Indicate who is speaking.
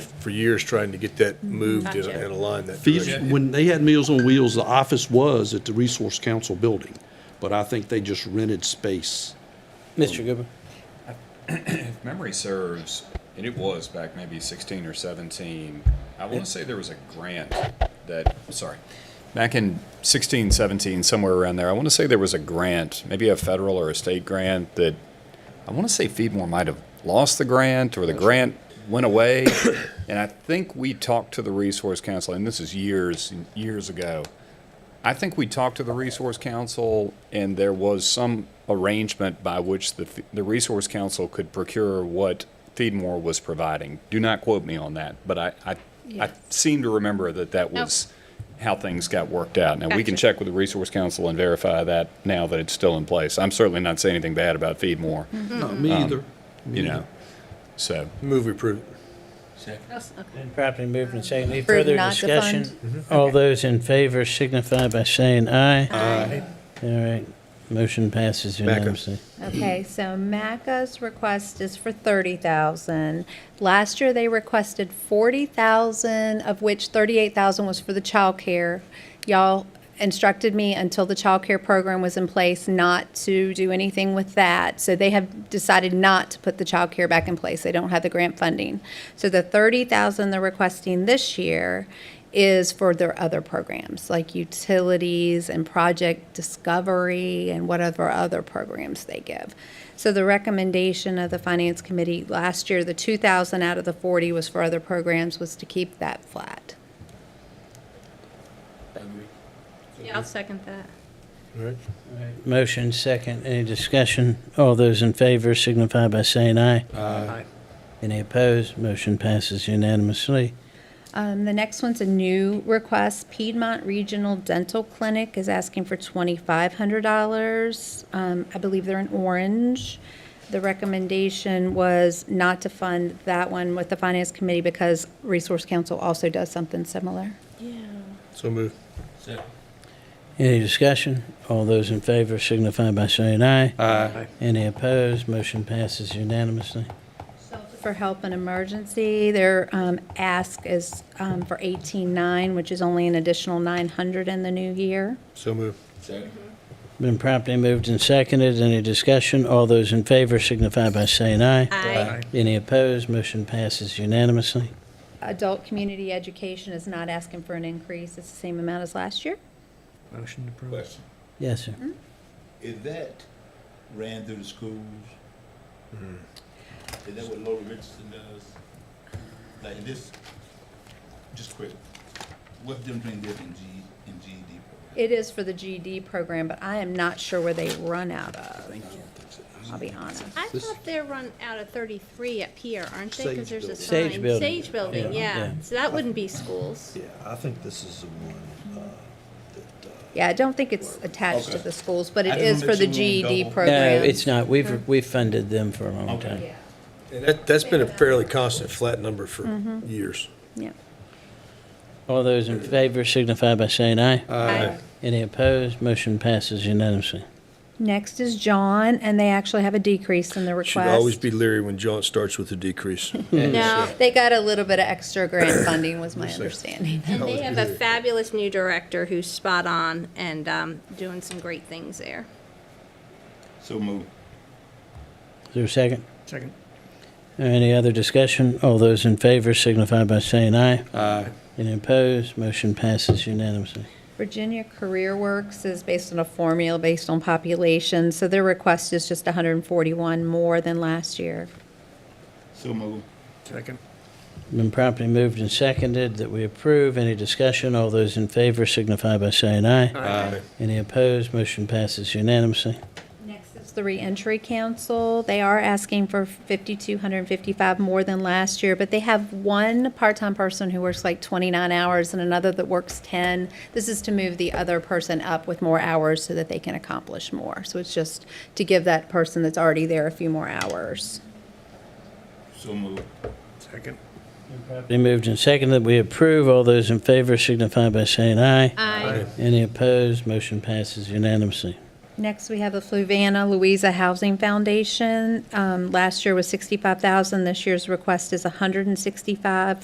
Speaker 1: for years trying to get that moved and
Speaker 2: Mm-hmm. Gotcha.
Speaker 1: and aligned that
Speaker 3: Fees,
Speaker 1: direction.
Speaker 3: when they had Meals on Wheels, the office was at the Resource Council building, but I think they just rented space.
Speaker 4: Mr. Goodman?
Speaker 5: If memory serves, and it was back maybe 16 or 17, I want to say there was a grant that, sorry, back in 16, 17, somewhere around there, I want to say there was a grant, maybe a federal or a state grant that, I want to say Feedmore might have lost the grant or the grant went away. and I think we talked to the Resource Council, and this is years, years ago. I think we talked to the Resource Council, and there was some arrangement by which the, the Resource Council could procure what Feedmore was providing. Do not quote me on that, but I, I, I
Speaker 2: Yes.
Speaker 5: seem to remember that that
Speaker 2: Nope.
Speaker 5: was how things got worked out. Now, we can
Speaker 2: Gotcha.
Speaker 5: check with the Resource Council and verify that now that it's still in place. I'm certainly not saying anything bad about Feedmore,
Speaker 3: No, me either.
Speaker 5: you know, so.
Speaker 1: Move we approve.
Speaker 4: Been properly moved and seconded. Any
Speaker 2: Approve
Speaker 4: further
Speaker 2: not to
Speaker 4: discussion? All those in favor signify by saying aye. Aye. All right, motion passes unanimously.
Speaker 2: Okay, so MACA's request is for thirty thousand. Last year, they requested forty thousand, of which thirty-eight thousand was for the childcare. Y'all instructed me until the childcare program was in place not to do anything with that. So they have decided not to put the childcare back in place. They don't have the grant funding. So the thirty thousand they're requesting this year is for their other programs, like utilities and project discovery and whatever other programs they give. So the recommendation of the finance committee last year, the two thousand out of the forty was for other programs, was to keep that flat.
Speaker 6: Yeah, I'll second that.
Speaker 1: All right.
Speaker 4: Motion second. Any discussion? All those in favor signify by saying aye. Aye. Any opposed? Motion passes unanimously.
Speaker 2: Um, the next one's a new request. Piedmont Regional Dental Clinic is asking for twenty-five hundred dollars. Um, I believe they're in Orange. The recommendation was not to fund that one with the finance committee because Resource Council also does something similar.
Speaker 1: So move.
Speaker 4: Any discussion? All those in favor signify by saying aye. Aye. Any opposed? Motion passes unanimously.
Speaker 2: For help in emergency, their, um, ask is, um, for eighteen-nine, which is only an additional nine hundred in the new year.
Speaker 1: So move.
Speaker 4: Been properly moved and seconded. Any discussion? All those in favor signify by saying aye.
Speaker 6: Aye.
Speaker 4: Any opposed? Motion passes unanimously.
Speaker 2: Adult community education is not asking for an increase. It's the same amount as last year.
Speaker 7: Motion to approve.
Speaker 8: Question,
Speaker 4: Yes, sir.
Speaker 8: is that ran through the schools? Mm-hmm. Is that what Laura Richardson does? Like in this, just quick, what's the difference between this and G, and GED program?
Speaker 2: It is for the GED program, but I am not sure where they run out of. I'll be honest.
Speaker 6: I thought they're run out of 33 up here, aren't they? Because there's a sign.
Speaker 4: Sage building.
Speaker 6: Sage building,
Speaker 4: Yeah.
Speaker 6: yeah.
Speaker 4: Yeah.
Speaker 6: So that wouldn't be schools.
Speaker 7: Yeah, I think this is the one, uh, that, uh,
Speaker 2: Yeah, I don't think it's attached to
Speaker 8: Okay.
Speaker 2: the schools, but
Speaker 8: I
Speaker 2: it
Speaker 8: just
Speaker 2: is for
Speaker 8: wanna
Speaker 2: the
Speaker 8: make sure we don't
Speaker 2: GED
Speaker 8: double-
Speaker 2: program.
Speaker 4: No, it's not. We've, we've funded them for a long time.
Speaker 2: Yeah,
Speaker 1: And that, that's been a fairly constant flat number
Speaker 2: Mm-hmm.
Speaker 1: for years.
Speaker 2: yeah.
Speaker 4: All those in favor signify by saying aye.
Speaker 2: Aye.
Speaker 4: Any opposed? Motion passes unanimously.
Speaker 2: Next is John, and they actually have a decrease in the request.
Speaker 1: Should always be leery when John starts with a decrease.
Speaker 6: No,
Speaker 2: They got a little bit of extra grant funding, was my understanding.
Speaker 6: and they have a fabulous new director who's spot on and um, doing some great things there.
Speaker 8: So move.
Speaker 4: Is there a second?
Speaker 7: second.
Speaker 4: Any other discussion? All those in favor signify by saying aye. Aye. Any opposed? Motion passes unanimously.
Speaker 2: Virginia Career Works is based on a formula based on population, so their request is just 141 more than last year.
Speaker 8: So move.
Speaker 7: Second.
Speaker 4: Been properly moved and seconded that we approve. Any discussion? All those in favor signify by saying aye. Aye. Any opposed? Motion passes unanimously.
Speaker 2: Next is the reentry council. They are asking for 5,255 more than last year, but they have one part-time person who works like 29 hours and another that works 10. This is to move the other person up with more hours so that they can accomplish more. So it's just to give that person that's already there a few more hours.
Speaker 8: So move.
Speaker 7: Second.
Speaker 4: Properly moved and seconded that we approve. All those in favor signify by saying aye.
Speaker 6: Aye.
Speaker 4: Any opposed? Motion passes unanimously.
Speaker 2: Next, we have the Fluvanna Louisa Housing Foundation. Um, Last year was 65,000. This year's request is 165.